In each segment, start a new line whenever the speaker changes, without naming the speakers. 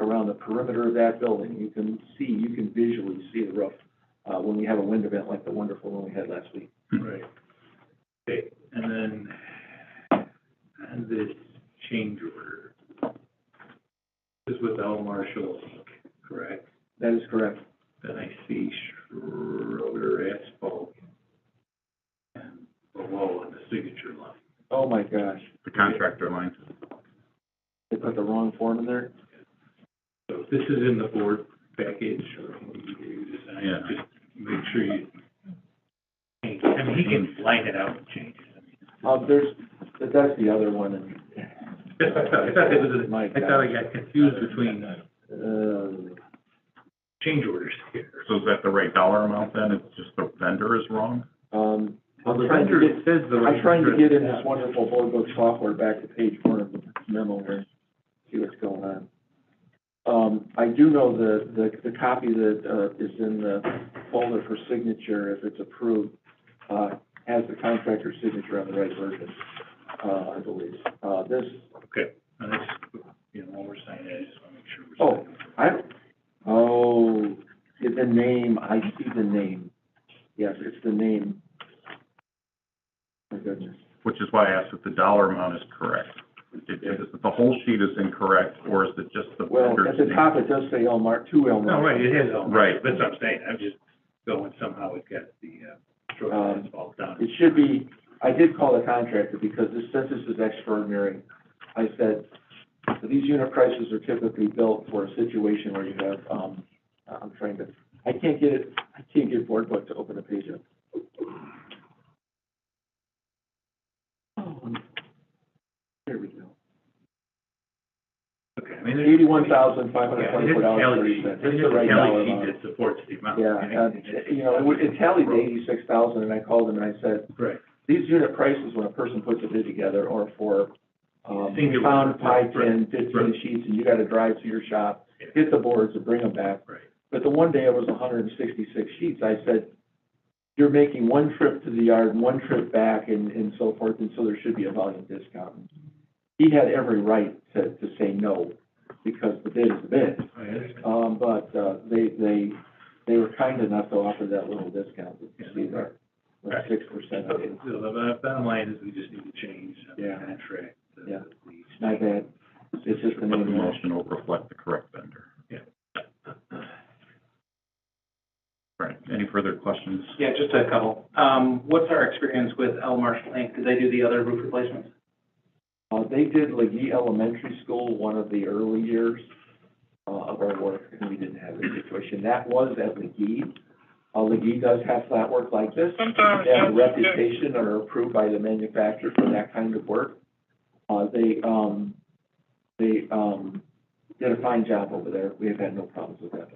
around the perimeter of that building, you can see, you can visually see the roof, uh, when we have a wind event like the wonderful one we had last week.
Right. Okay, and then, and this change order. This is with L Marshall Inc., correct?
That is correct.
Then I see Schroeder Asphalt. And below in the signature line.
Oh, my gosh,
the contractor line.
they put the wrong form in there?
So this is in the board package, or you design,
Yeah.
just make sure you. I mean, he can line it out and change
Uh, there's, that's the other one, and,
it. I thought, I thought it was,
My
I thought I got confused between
uh,
change orders here.
So is that the right dollar amount then? It's just the vendor is wrong?
um,
Well,
I'm
the
trying to
vendor,
get,
it says the.
I'm trying to get in this wonderful board book software back to page one of the memo here, see what's going on. Um, I do know the, the, the copy that, uh, is in the folder for signature, if it's approved, uh, has the contractor's signature on the right version, uh, I believe. Uh, this,
Okay, and that's, you know, when we're signing it, I just wanna
Oh.
make sure we're.
I, oh, is the name, I see the name. Yes, it's the name. My goodness.
Which is why I asked if the dollar amount is correct. If, if the whole sheet is incorrect, or is it just the
Well,
vendor's
at the
name?
top, it does say Elmar, two
No,
Elmar.
Oh, right, it is all.
Right.
That's what I'm saying, I'm just going somehow it got the, uh,
Um,
stroke asphalt down.
It should be, I did call the contractor because this census is extraordinary. I said, these unit prices are typically built for a situation where you have, um, I'm trying to, I can't get it, I can't get board book to open the page up. Oh, There we go.
Okay, I mean, there's.
Eighty-one thousand, five hundred
Yeah, it is
twenty-four
a
dollars, thirty
tally sheet,
cents.
it
It's
is
the
a
right dollar
tally sheet
amount.
that supports the amount.
Yeah,
and
and,
it's-
you know, it would- it tallied eighty-six thousand, and I called him and I said,
Right,
these unit prices, when a person puts a bid together, are for, um,
Singular.
pound, pie
Right,
tin, fifteen
right.
sheets, and you gotta drive to your shop,
Yeah.
get the boards and bring them back.
right,
But the one day it was hundred and sixty-six sheets, I said, you're making one trip to the yard, and one trip back, and, and so forth, and so there should be a volume discount. He had every right to, to say no, because the bid is the bid.
I understand.
Um, but, uh, they, they, they were kind enough to offer that little discount, that you see there, like
Right.
six percent of it.
So the bo- bottom line is we just need to change the
Yeah.
contract. the-
Yeah.
the-
It's not bad, it's just the
But the
name. of it.
motion will reflect the correct vendor. Right. Any further questions?
Yeah, just a couple. Um, what's our experience with L Marshall Inc.? Did they do the other roof replacements?
Uh, they did Lee Elementary School, one of the early years, uh, of our work, and we didn't have this situation. That was at Lee. Uh, Lee does have flat work like this.
Sometimes,
They have a
yes, yes.
reputation or are approved by the manufacturer for that kind of work. Uh, they, um, they, um, did a fine job over there. We have had no problems with that.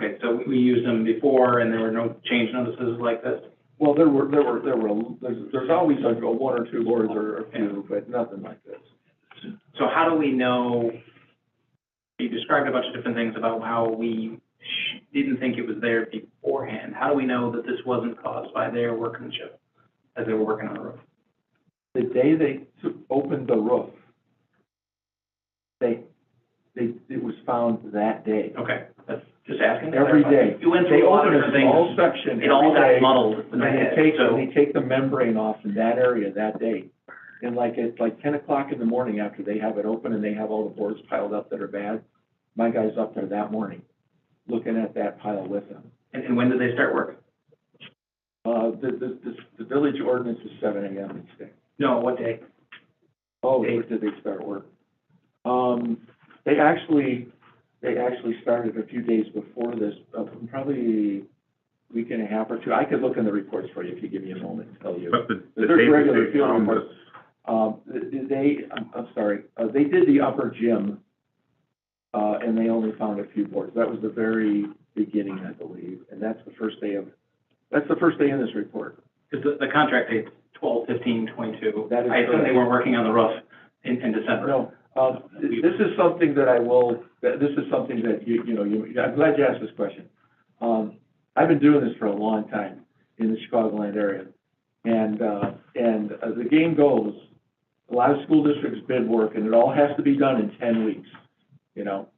Okay, so we, we used them before and there were no change notices like this?
Well, there were, there were, there were, there's, there's always like a one or two boards or a few, but nothing like this.
So how do we know, you described a bunch of different things about how we sh- didn't think it was there beforehand. How do we know that this wasn't caused by their workmanship as they were working on the roof?
the day they took, opened the roof, they, they, it was found that day.
Okay, that's just asking. to
Every
clarify.
day.
You went
They
through a lot
open
of
a
different
small
things.
section
It all
every
got
day,
muddled in
and
my
they
head,
take,
so.
they take the membrane off in that area that day. And like, it's like ten o'clock in the morning after they have it open and they have all the boards piled up that are bad, my guy's up there that morning, looking at that pile with them.
And, and when did they start work?
Uh, the, the, the, the village ordinance is seven AM each day.
No, what day?
Oh, where did they start work? Um, they actually, they actually started a few days before this, uh, probably a week and a half or two. I could look in the reports for you if you give me a moment to tell you.
But the, the
There's
date
regular
that they
field
found
reports.
this,
Um, th- th- they, I'm, I'm sorry, uh, they did the upper gym, uh, and they only found a few boards. That was the very beginning, I believe, and that's the first day of, that's the first day in this report.
Because the, the contract date's twelve fifteen twenty-two.
That is
I assume
correct.
they weren't working on the roof in, in December.
No, um, th- this is something that I will, that- this is something that you, you know, you, I'm glad you asked this question. Um, I've been doing this for a long time in the Chicagoland area. And, uh, and as the game goes, a lot of school districts bid work and it all has to be done in ten weeks, you know?